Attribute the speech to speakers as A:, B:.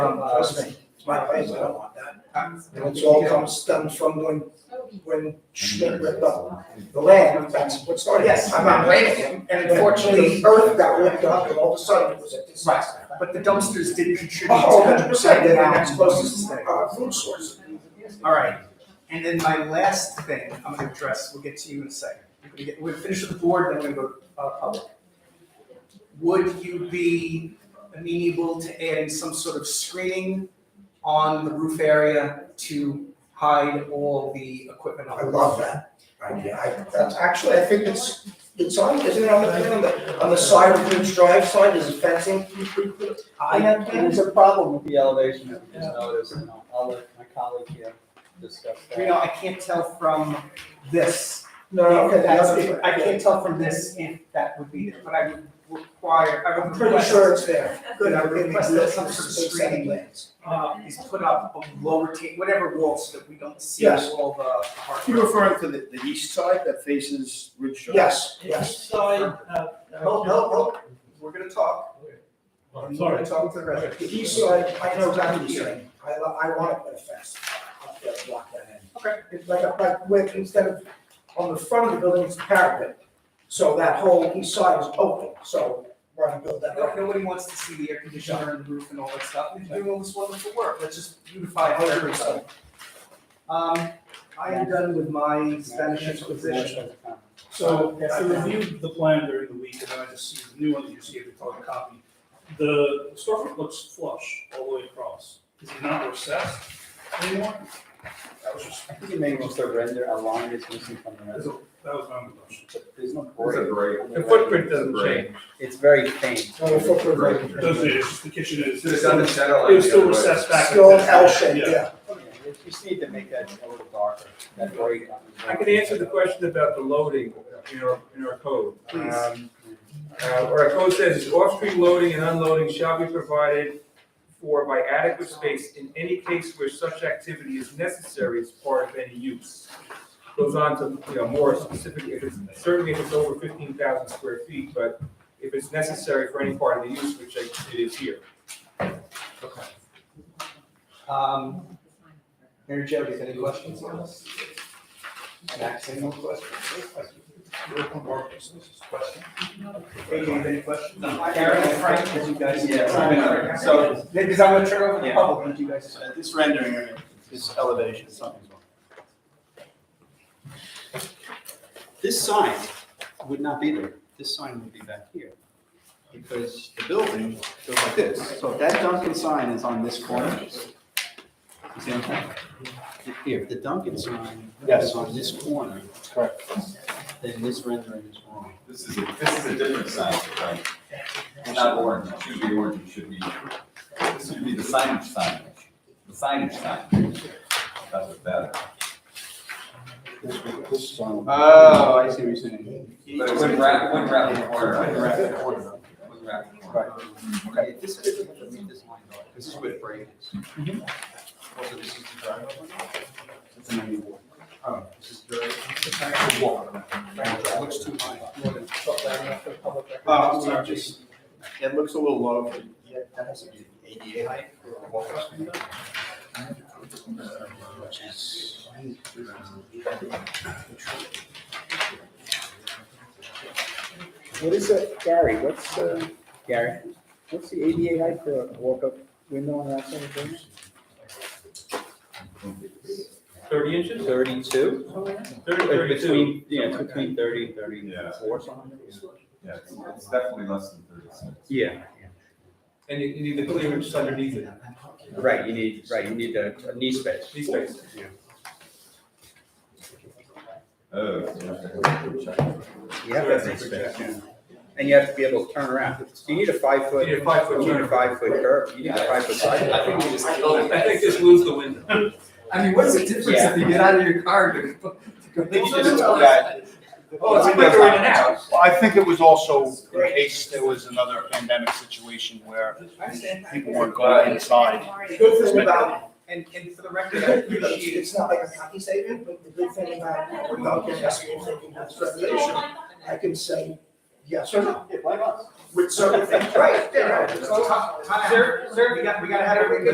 A: Um, trust me, it's my place, I don't want that. And
B: It's
A: it's all comes, stems from when, when Schmidt ripped up the land, that's what started. it.
C: Yes.
A: I'm not blaming him, and unfortunately, the earth got ripped up, and all of a sudden, it was a disaster.
C: But the dumpsters did contribute
A: Oh,
C: to
A: 100
C: the,
A: percent,
C: the
A: and
C: next
A: that's
C: closest
A: closest,
C: thing.
A: uh, food source.
C: All right, and then my last thing I'm gonna address, we'll get to you in a second. We're gonna get- We're gonna finish with the board, then we're gonna go uh, public. Would you be amenable to adding some sort of screening on the roof area to hide all the equipment? on
A: I
C: the roof?
A: love that idea, I, that's, actually, I think it's, it's on, isn't it on the, on the, on the side of Ridge Drive side, is fencing?
D: I have, there's a problem with the elevation that we just noticed, and I'll- I'll let my colleague here discuss
C: You know,
D: that.
C: I can't tell from this
A: No, no, okay, the
C: That's-
A: other
C: if-
A: side.
C: I can't tell from this if that would be there, but I would require, I
A: I'm
C: would
A: pretty
C: request.
A: sure it's there.
C: Good, I would request that some sort of
A: Six,
C: screening
A: seven plans.
C: uh, is put up of lower ta, whatever wall, so that we don't see
A: Yes.
C: all the hard.
E: You're referring to the, the east side that faces Ridge Drive?
A: Yes, yes.
F: East side, uh,
C: Hold, hold,
A: Oh.
C: hold, we're gonna talk,
F: I'm
C: we're
F: sorry,
C: gonna talk to the resident.
A: The east side, I know exactly what you're saying. I, lo- I want to put a fence up there, to block that in.
C: Okay.
A: It's like, a- like, with, instead of, on the front of the building, it's parapet. So that whole east side is open, so we're gonna build that
C: No-
A: up.
C: Nobody wants to see the air conditioner and the roof and all that stuff, we're doing all this wonderful work, let's just beautify everything. Um, I am done with my Spanish exposition.
F: so I reviewed the plan during the week, and then I just see the new one that you just gave the color copy. The storefront looks flush all the way across, is it not recessed anymore? That was just,
D: I think you may want to render a line that's missing from the
F: that
D: rest,
F: was my only question.
D: but there's no
G: It's a
D: board.
G: great-
D: The
H: footprint doesn't change.
D: It's very faint.
A: So the footprint right
F: It
A: there.
F: doesn't, it's just the kitchen is,
G: It's just on the
F: it
G: center line.
F: was
G: the
F: still
G: other way.
F: recessed back.
A: Still an L shape, yeah.
D: You just need to make that a little darker, that gray.
H: I can answer the question about the loading in our, in our code.
C: Please.
H: Um, uh, Our code says, off-street loading and unloading shall be provided for by adequate space in any case where such activity is necessary as part of any use. Goes on to, you know, more specific, if it's, certainly if it's over fifteen thousand square feet, but if it's necessary for any part of the use, which I- it is here.
C: Um, Mary Jo, do you have any questions on this? And actually, no questions. Hey, do you have any questions? Karen and Frank, did you guys?
D: Yeah,
C: Frank and Frank.
E: so-
C: Because I'm gonna turn over the
E: Yeah.
C: public, and you guys.
D: Uh,
E: This rendering, this elevation, something's wrong.
D: This sign would not be there, this sign would be back here. Because the building goes like this, so if that Dunkin' sign is on this corner. You see what I'm saying? If- Here, if the Dunkin' sign is on this corner. Correct. Then this rendering is wrong.
G: This is, a- this is a different sign, right? It's Not orange, it should be orange, it should be, this should be the signage sign, the signage sign. That's what that.
D: This, this is on.
E: Oh,
D: I see what you're saying.
G: But it wouldn't wrap, wouldn't wrap the corner. right?
D: Wouldn't wrap the corner.
G: Wouldn't wrap the corner.
D: Right. Okay, this is, we have to read this line, though, this is where the break is. Also, this is the driveway. It's a new one. Oh, this is the, it's the back wall. It looks too high.
H: Uh,
E: Oh, I'm sorry, just, it looks a little low. for- Yeah, that has to be ADA height for a walk up.
D: What is it, Gary, what's, uh, Gary, what's the ADA height for a walk-up window on that side of things?
H: Thirty inches,
D: Thirty-two?
H: thirty, thirty-two.
D: yeah, it's between thirty and
G: Yeah.
D: something.
G: Yeah, it's- it's definitely less than thirty-six.
D: Yeah,
H: And you, you need the clearance underneath it,
D: right, you need, right, you need a, a knee space.
H: these spaces.
G: Oh. so you have to have a check.
D: You have to have knee space. And you have to be able to turn around. You need a five-foot,
H: You
D: you
H: need a five-foot
D: need a
H: turn.
D: five-foot curve, you need a five-foot side.
G: I think we just
H: killed it. I think just lose the window.
C: I mean, what's the difference
D: if
C: you get out of your car to go?
E: Yeah.
H: Oh, it's quicker in and out.
E: Well, I think it was also in case there was another pandemic situation where
C: I understand.
E: people weren't going inside.
A: The Good thing about,
C: And, and for the record, I appreciate it.
A: it's not like a copy statement, but the good thing about, when Dunkin' has me thinking that's regulation, I can say yes or no. With certain things, right, there, it's not-
C: Sir, sir, we got, we gotta have everything.